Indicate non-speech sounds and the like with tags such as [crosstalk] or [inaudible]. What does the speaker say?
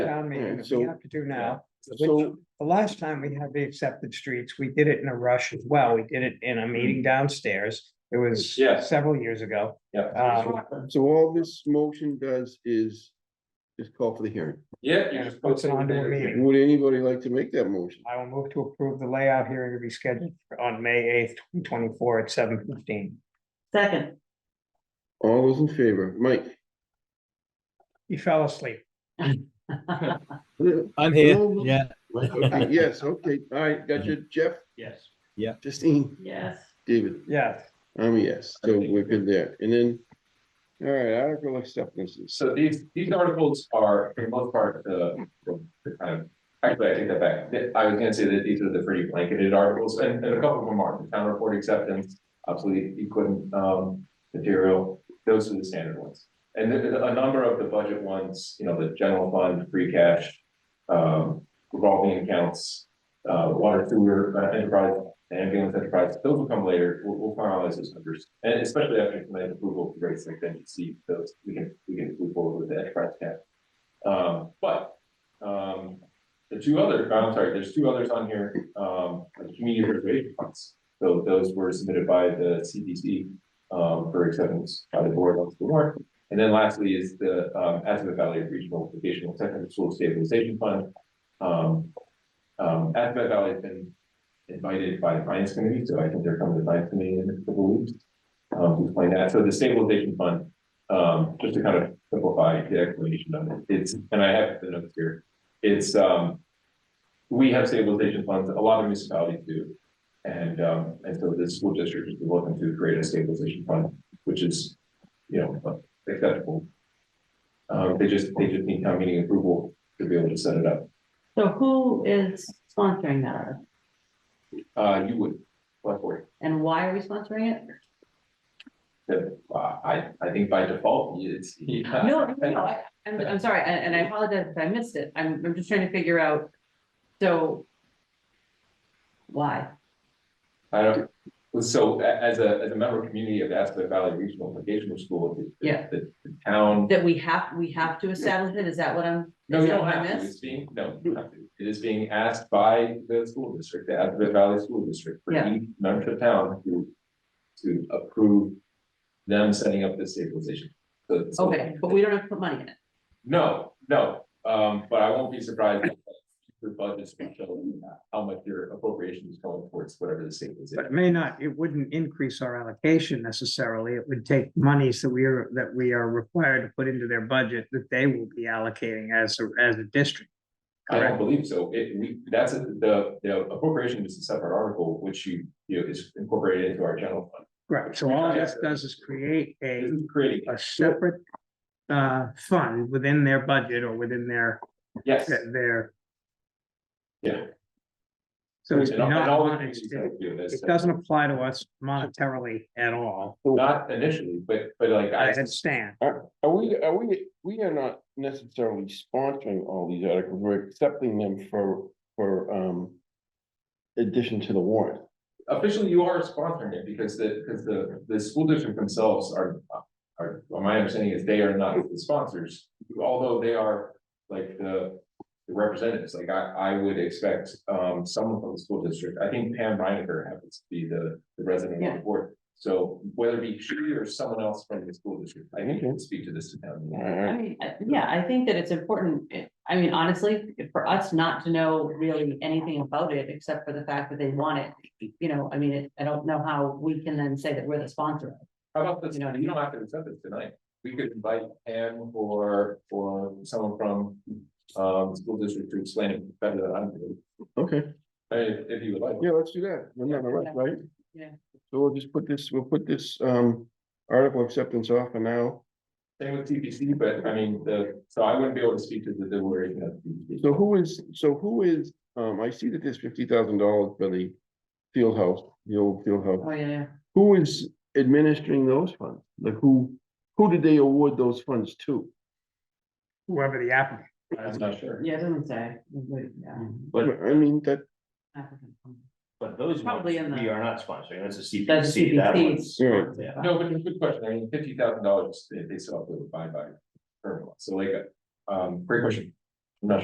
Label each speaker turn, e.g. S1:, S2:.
S1: town meeting that we
S2: so-
S1: have to do now. Which,
S2: So,
S1: the last time we had the accepted streets, we did it in a rush as well. We did it in a meeting downstairs. It was
S3: Yeah.
S1: several years ago.
S3: Yeah.
S1: Um,
S2: so all this motion does is, is call for the hearing.
S3: Yeah. you
S1: and
S3: just
S1: it puts it
S3: posted
S1: onto a
S3: there.
S1: meeting.
S2: Would anybody like to make that motion?
S1: I will move to approve the layout hearing to be scheduled on May eighth, twenty twenty-four at seven fifteen.
S4: Second,
S3: [laughs]
S2: All those in favor, Mike?
S1: You fell asleep.
S5: I'm here.
S2: Hello.
S5: Yeah.
S2: Okay, Yes, okay, all right, got you, Jeff,
S3: Yes.
S2: Justine,
S4: yes,
S2: David,
S1: Yes.
S2: I'm a yes, so we're good there, and then. All right, article acceptances,
S3: So these, these articles are, for the most part, the, the kind of, actually, I take that back. Th- I was gonna say that these are the pretty blanketed articles, and, and a couple of them are, the town report acceptance, obsolete equipment, um, material, those are the standard ones. And then a number of the budget ones, you know, the general fund, free cash, um, revolving accounts, uh, water, sewer, uh, enterprise, ambulance enterprise, those will come later, we'll, we'll finalize those numbers. And especially after tonight approval, great, so then you see those, we can, we can move forward with the enterprise cap. Um, but, um, the two other, I'm sorry, there's two others on here, um, the community preservation funds. So those were submitted by the CDC, um, for acceptance by the board once the warrant. And then lastly is the, um, Azabeth Valley Regional Vocational Technical School Stabilization Fund. Um, um, Azabeth Valley has been invited by the finance committee, so I think they're coming to the finance committee in a couple of weeks. Um, to explain that, so the stabilization fund, um, just to kind of simplify the explanation of it, it's, and I have the notes here, it's, um. We have stabilization funds, a lot of municipalities do, and, um, and so the school district is welcome to create a stabilization fund, which is, you know, acceptable. Um, they just, they just need town meeting approval to be able to set it up,
S4: so who is sponsoring that, article?
S3: uh, you would, select board.
S4: and why are we sponsoring it?
S3: that, uh, I, I think by default, it's. uh,
S4: No, no, I- I'm, I'm sorry, and, and I apologize if I missed it, I'm, I'm just trying to figure out, so. Why?
S3: I don't, so a- as a, as a member community of the Aspen Valley Regional Vocational School, the- the-
S4: Yeah.
S3: the, the town.
S4: That we have, we have to establish it, is that what I'm?
S3: No,
S4: is
S3: you
S4: that
S3: don't
S4: what I
S3: have to, it's
S4: missed?
S3: being, no, you don't have to. it is being asked by the school district, the Aspen Valley School District, for
S4: Yeah.
S3: each member of town to. To approve them setting up this stabilization. So- so-
S4: Okay, but we don't have to put money in it,
S3: No, no, um, but I won't be surprised if your budgets will show how much your appropriation is going towards whatever the state is.
S1: But it may not, it wouldn't increase our allocation necessarily. It would take monies that we are, that we are required to put into their budget that they will be allocating as, a as a district.
S3: I
S1: Correct.
S3: don't believe so. It, we, that's a- the, the appropriation is a separate article, which you, you know, is incorporated into our general fund.
S1: Right, so all this does is create a,
S3: This is creating,
S1: a separate uh, fund within their budget or within their,
S3: yes,
S1: their.
S3: yeah.
S1: So it's
S3: And all- and
S1: not,
S3: all the
S1: monet-
S3: communities have to do
S1: it
S3: this.
S1: it doesn't apply to us monetarily at all.
S3: Not initially, but, but like,
S1: I
S3: I,
S1: understand.
S2: are, are we, are we, we are not necessarily sponsoring all these articles, we're accepting them for, for, um. Addition to the warrant,
S3: officially you are sponsoring it because the, because the, the school district themselves are, are, well, my understanding is they are not the sponsors, although they are like the the representatives, like I, I would expect, um, someone from the school district, I think Pam Reiniger happens to be the, the resident on
S4: Yeah.
S3: the board. So whether it be she or someone else from the school district, I think can speak to this to
S2: all
S3: them.
S4: I
S2: right,
S4: mean, I- yeah, I think that it's important, It- I mean, honestly, for us not to know really anything about it, except for the fact that they want it. You know, I mean, it- I don't know how we can then say that we're the sponsor,
S3: How about this, you know, you don't have to accept this tonight, we could invite Pam or, or someone from, um, school district to explain it better than I'm doing.
S2: okay,
S3: Uh, If, if you would like.
S2: yeah, let's do that, we're not in a rush, right?
S4: Yeah.
S2: So we'll just put this, we'll put this, um, article acceptance off for now,
S3: Same with TPC, but I mean, the, so I wouldn't be able to speak to the deliberation of TPC.
S2: so who is, so who is, um, I see that there's fifty thousand dollars for the. Field house, the old field house.
S4: oh, yeah, yeah.
S2: Who is administering those funds? Like who, who did they award those funds to?
S1: Whoever the applicant,
S3: I'm not sure.
S4: Yeah, it doesn't say. Yeah.
S6: But,
S2: I mean, that,
S6: but those ones,
S4: Probably
S6: we
S4: in the-
S6: are not sponsoring, that's a
S4: That's
S6: CPC, that one's.
S4: CPC.
S2: yeah,
S6: Yeah.
S3: No, but it's a good question. I mean, fifty thousand dollars, they, they still have to abide by. current law. So like, um, great question.